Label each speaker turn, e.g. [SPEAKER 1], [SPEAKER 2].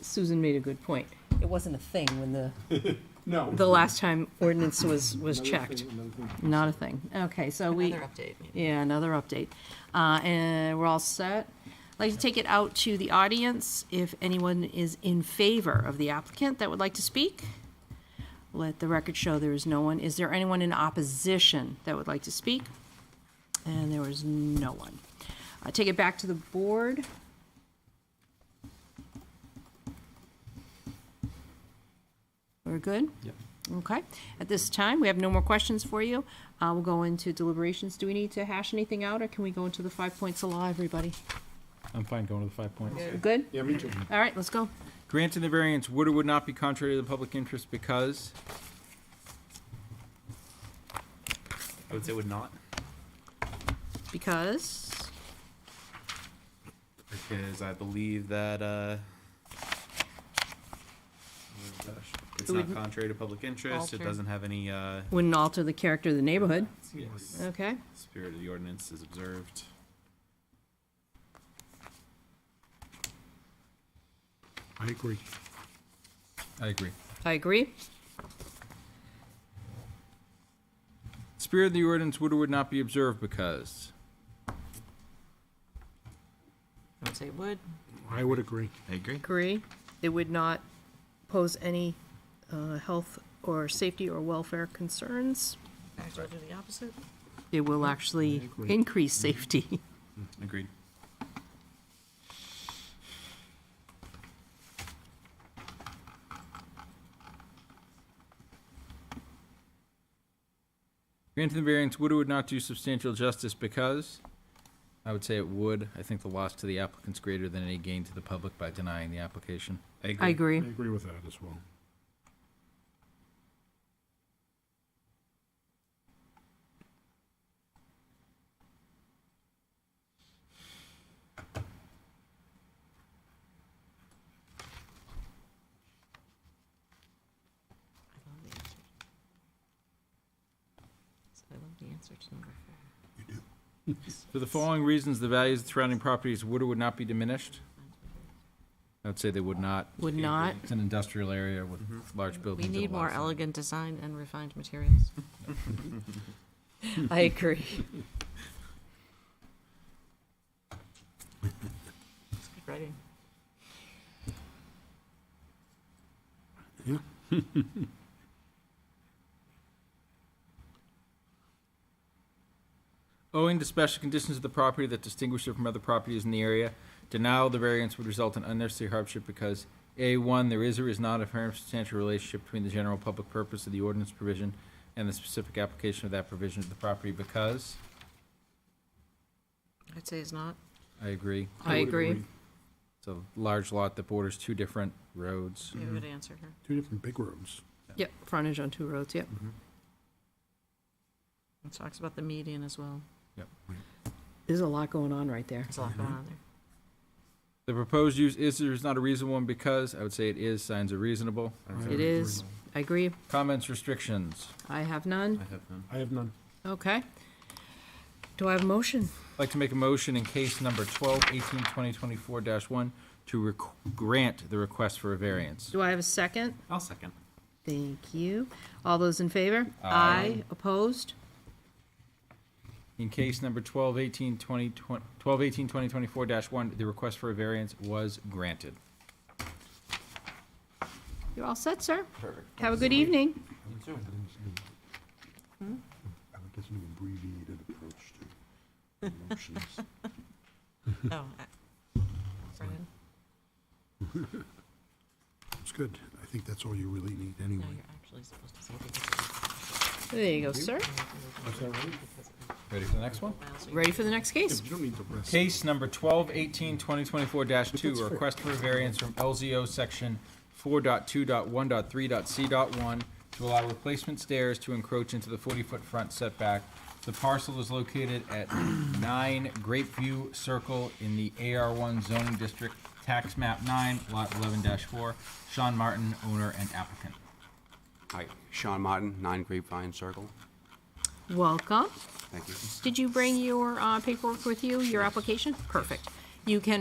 [SPEAKER 1] Susan made a good point. It wasn't a thing when the,
[SPEAKER 2] No.
[SPEAKER 1] the last time ordinance was, was
[SPEAKER 2] Another
[SPEAKER 1] checked.
[SPEAKER 2] thing, another thing.
[SPEAKER 1] Not a thing. Okay, so we,
[SPEAKER 3] Another update. maybe.
[SPEAKER 1] yeah, another update. Uh, and we're all set. I'd Like to take it out to the audience. If anyone is in favor of the applicant that would like to speak, let the record show there is no one. Is there anyone in opposition that would like to speak? And there was no one. I take it back to the board. We're good?
[SPEAKER 4] Yep.
[SPEAKER 1] Okay. At this time, we have no more questions for you. Uh, we'll go into deliberations. Do we need to hash anything out, or can we go into the five points of law, everybody?
[SPEAKER 4] I'm fine going to the five points.
[SPEAKER 1] Good?
[SPEAKER 2] Yeah, me too.
[SPEAKER 1] All right, let's go.
[SPEAKER 4] Granting the variance would or would not be contrary to the public interest because? I would say would not.
[SPEAKER 1] Because,
[SPEAKER 5] Because I believe that, uh, oh gosh, it's
[SPEAKER 1] It
[SPEAKER 5] not
[SPEAKER 1] wouldn't
[SPEAKER 5] contrary to public interest, it
[SPEAKER 3] alter-
[SPEAKER 5] doesn't have any, uh,
[SPEAKER 1] wouldn't alter the character of the neighborhood. Okay.
[SPEAKER 5] spirit of the ordinance is observed.
[SPEAKER 2] I agree.
[SPEAKER 4] I agree.
[SPEAKER 1] I agree.
[SPEAKER 4] Spirit of the ordinance would or would not be observed because?
[SPEAKER 3] I would say would.
[SPEAKER 2] I would agree.
[SPEAKER 5] I agree.
[SPEAKER 1] Agree. It would not pose any uh, health or safety or welfare concerns.
[SPEAKER 3] Actually, I'll do the opposite.
[SPEAKER 1] It will actually
[SPEAKER 2] agree.
[SPEAKER 1] increase safety.
[SPEAKER 5] Agreed.
[SPEAKER 4] Granting the variance would or would not do substantial justice because? I would say it would. I think the loss to the applicant's greater than any gain to the public by denying the application.
[SPEAKER 1] I
[SPEAKER 2] I
[SPEAKER 1] agree.
[SPEAKER 2] agree with that as well.
[SPEAKER 3] I love the answer. So I love the answer to number four.
[SPEAKER 4] For the following reasons, the values of surrounding properties would or would not be diminished? I would say they would not.
[SPEAKER 1] Would not.
[SPEAKER 4] It's an industrial area with large
[SPEAKER 3] Mm-hmm. We
[SPEAKER 4] buildings. and
[SPEAKER 3] need
[SPEAKER 4] a lot
[SPEAKER 3] more
[SPEAKER 4] of-
[SPEAKER 3] elegant design and refined materials.
[SPEAKER 1] I agree.
[SPEAKER 3] It's good writing.
[SPEAKER 2] Yeah.
[SPEAKER 4] Owing to special conditions of the property that distinguish it from other properties in the area, denial of the variance would result in unnecessary hardship because A, one, there is or is not a firm substantial relationship between the general public purpose of the ordinance provision and the specific application of that provision to the property because,
[SPEAKER 3] I'd say it's not.
[SPEAKER 4] I agree,
[SPEAKER 1] I
[SPEAKER 2] would
[SPEAKER 1] agree.
[SPEAKER 4] it's a large lot that borders two different roads.
[SPEAKER 3] Yeah, good answer here.
[SPEAKER 2] Two different big rooms.
[SPEAKER 1] Yep, frontage on two roads, yep.
[SPEAKER 3] It talks about the median as well.
[SPEAKER 1] There's a lot going on right there.
[SPEAKER 3] There's a lot going on there.
[SPEAKER 4] The proposed use is or is not a reasonable one because, I would say it is, signs are reasonable.
[SPEAKER 5] I
[SPEAKER 1] It is. I agree.
[SPEAKER 4] Comments, restrictions?
[SPEAKER 1] I have none.
[SPEAKER 5] I have none.
[SPEAKER 2] I have none.
[SPEAKER 1] Okay. Do I have a motion?
[SPEAKER 4] I'd like to make a motion in case number 12, 18, 20, 24-1 to rec- grant the request for a variance.
[SPEAKER 1] Do I have a second?
[SPEAKER 5] I'll second.
[SPEAKER 1] Thank you. All those in favor?
[SPEAKER 4] Aye.
[SPEAKER 1] Opposed?
[SPEAKER 4] In case number 12, 18, 20, 20 12, 18, 20, 24-1, the request for a variance was granted.
[SPEAKER 1] You're all set, sir? Perfect. Have a good evening.
[SPEAKER 2] I like this new abbreviated approach to emotions.
[SPEAKER 3] Oh. I- Brennan?
[SPEAKER 2] It's good. I think that's all you really need anyway.
[SPEAKER 3] No, you're actually supposed to say the-
[SPEAKER 1] There you go, sir.
[SPEAKER 4] Ready for the next one?
[SPEAKER 3] Wow, so you-
[SPEAKER 1] Ready for the next
[SPEAKER 2] Yeah,
[SPEAKER 1] case?
[SPEAKER 2] but You don't need the rest.
[SPEAKER 4] Case number 12, 18, 20, 24-2,
[SPEAKER 2] That's
[SPEAKER 4] a
[SPEAKER 2] fair.
[SPEAKER 4] request for a variance from LZO Section 4.2.1.3.C.1 to allow replacement stairs to encroach into the 40-foot front setback. The parcel is located at 9 Grapeview Circle in the AR1 zoning district, tax map 9, lot 11-4. Sean Martin, owner and applicant.
[SPEAKER 6] Hi, Sean Martin, 9 Grapevine Circle.
[SPEAKER 1] Welcome.
[SPEAKER 6] Thank you.
[SPEAKER 1] Did you bring your uh, paperwork with you, your application? Perfect. You can